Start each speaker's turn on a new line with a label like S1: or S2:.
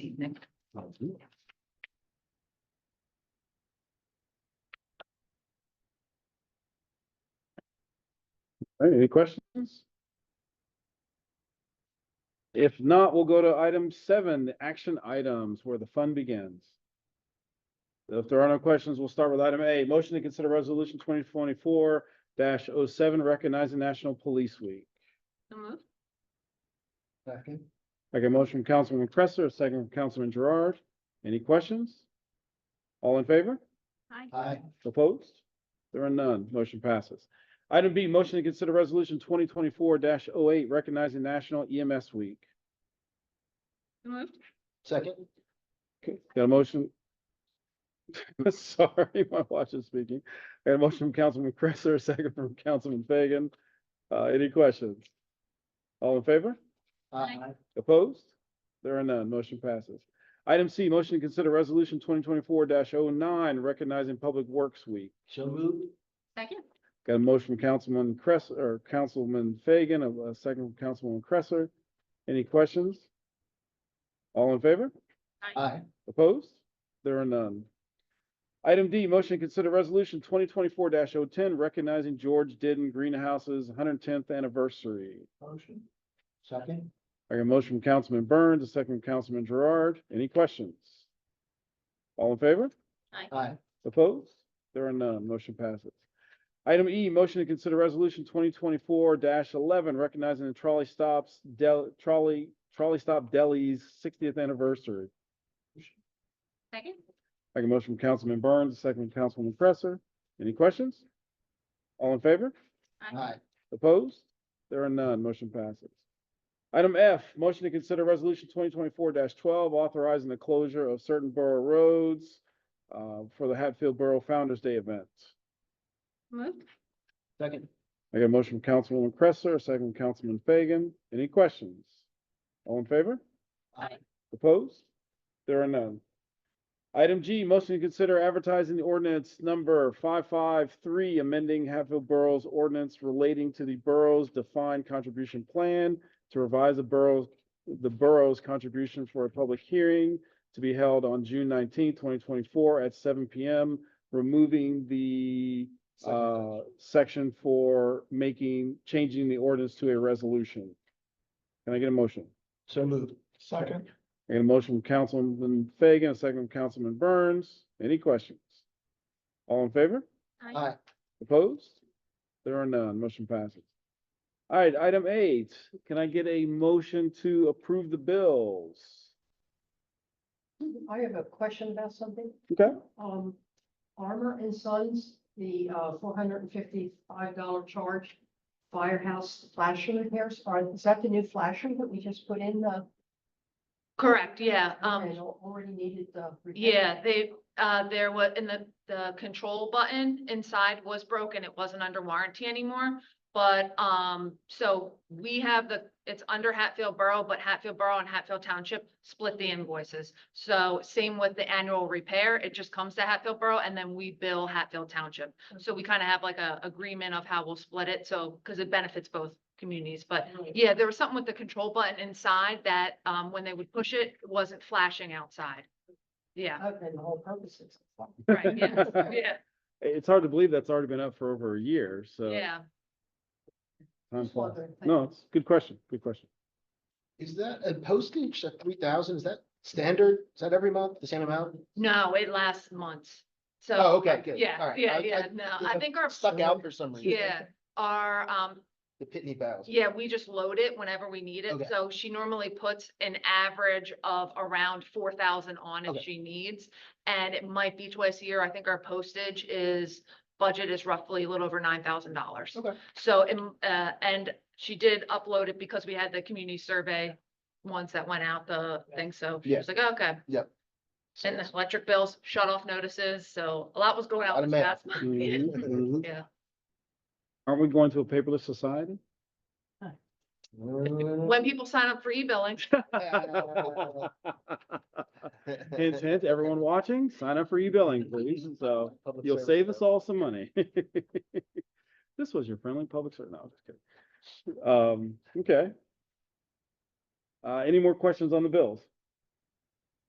S1: evening.
S2: All right, any questions? If not, we'll go to item seven, the action items, where the fun begins. If there are no questions, we'll start with item A, motion to consider resolution twenty twenty-four 7 recognizing National Police Week.
S1: So moved.
S3: Second.
S2: I get a motion from Councilman Cresser, a second from Councilman Gerard. Any questions? All in favor?
S3: Aye.
S2: Opposed? There are none. Motion passes. Item B, motion to consider resolution twenty twenty-four 8 recognizing National EMS Week.
S1: So moved.
S3: Second.
S2: Okay, got a motion? Sorry, my watch is speaking. Got a motion from Councilman Cresser, a second from Councilman Fagan. Uh, any questions? All in favor?
S1: Aye.
S2: Opposed? There are none. Motion passes. Item C, motion to consider resolution twenty twenty-four 9 recognizing Public Works Week.
S3: So moved.
S1: Second.
S2: Got a motion from Councilman Cress, or Councilman Fagan, a a second from Councilwoman Cresser. Any questions? All in favor?
S3: Aye.
S2: Opposed? There are none. Item D, motion to consider resolution twenty twenty-four 10 recognizing George Didden Greenhouse's one hundred tenth anniversary.
S3: Motion. Second.
S2: I got a motion from Councilman Burns, a second from Councilman Gerard. Any questions? All in favor?
S3: Aye.
S2: Opposed? There are none. Motion passes. Item E, motion to consider resolution twenty twenty-four eleven, recognizing the trolley stops, del, trolley, trolley stop deli's sixtieth anniversary.
S1: Second.
S2: I got a motion from Councilman Burns, a second from Councilwoman Presser. Any questions? All in favor?
S3: Aye.
S2: Opposed? There are none. Motion passes. Item F, motion to consider resolution twenty twenty-four twelve, authorizing the closure of certain borough roads uh, for the Hatfield Borough Founder's Day event.
S1: Moved.
S3: Second.
S2: I got a motion from Councilwoman Cresser, a second from Councilman Fagan. Any questions? All in favor?
S3: Aye.
S2: Opposed? There are none. Item G, motion to consider advertising the ordinance number five-five-three, amending Hatfield Borough's ordinance relating to the borough's defined contribution plan to revise the borough's, the borough's contribution for a public hearing to be held on June nineteenth, twenty twenty-four at seven PM, removing the uh, section for making, changing the ordinance to a resolution. Can I get a motion?
S3: So moved. Second.
S2: I got a motion from Councilman Fagan, a second from Councilman Burns. Any questions? All in favor?
S3: Aye.
S2: Opposed? There are none. Motion passes. All right, item eight, can I get a motion to approve the bills?
S4: I have a question about something.
S2: Okay.
S4: Um, Armor and Sons, the uh four hundred and fifty-five dollar charge. Firehouse flashing repairs, are, is that the new flasher that we just put in the,
S5: Correct, yeah,
S4: and
S5: um,
S4: already needed the? repair?
S5: yeah, they, uh, there was, and the, the control button inside was broken, it wasn't under warranty anymore. But, um, so we have the, it's under Hatfield Borough, but Hatfield Borough and Hatfield Township split the invoices. So same with the annual repair, it just comes to Hatfield Borough and then we bill Hatfield Township. So we kind of have like a agreement of how we'll split it, so, because it benefits both communities, but
S4: Right.
S5: yeah, there was something with the control button inside that, um, when they would push it, it wasn't flashing outside. Yeah,
S4: Okay, the whole purpose is.
S5: right, yeah, yeah,
S2: It's hard to believe that's already been up for over a year, so.
S5: yeah.
S2: time
S4: Just
S2: flies.
S4: wondering.
S2: No, it's a good question, good question.
S3: Is that a postage at three thousand? Is that standard? Is that every month, the same amount?
S5: No, it lasts months. So.
S3: Oh, okay, good. All
S5: Yeah,
S3: right. I-
S5: yeah,
S3: I-
S5: yeah, no, I
S3: that
S5: think our,
S3: Stuck out for some reason.
S5: yeah, our, um,
S3: The Pitney Bowes.
S5: yeah, we just load it whenever we need it.
S3: Okay.
S5: So she normally puts an average of around four thousand on if
S3: Okay.
S5: she needs. And it might be twice a year. I think our postage is, budget is roughly a little over nine thousand dollars.
S3: Okay.
S5: So, and, uh, and she did upload it because we had the community survey ones that went out, the thing, so she
S3: Yeah.
S5: was like, "Oh, okay. And the
S3: Sales.
S5: electric bills, shut off notices, so a lot was going out.
S3: Lot of
S5: this
S3: mail.
S5: past month. Yeah.
S2: Mhm, mhm.
S5: Yeah.
S2: Aren't we going to a paperless society?
S5: When people sign up for e-billing,
S2: Hint, hint, everyone watching, sign up for e-billing, please, so
S3: Public
S2: you'll
S3: service
S2: save us
S3: announcement.
S2: all some money. This was your friendly public service, no, I'm just kidding. Um, okay. Uh, any more questions on the bills?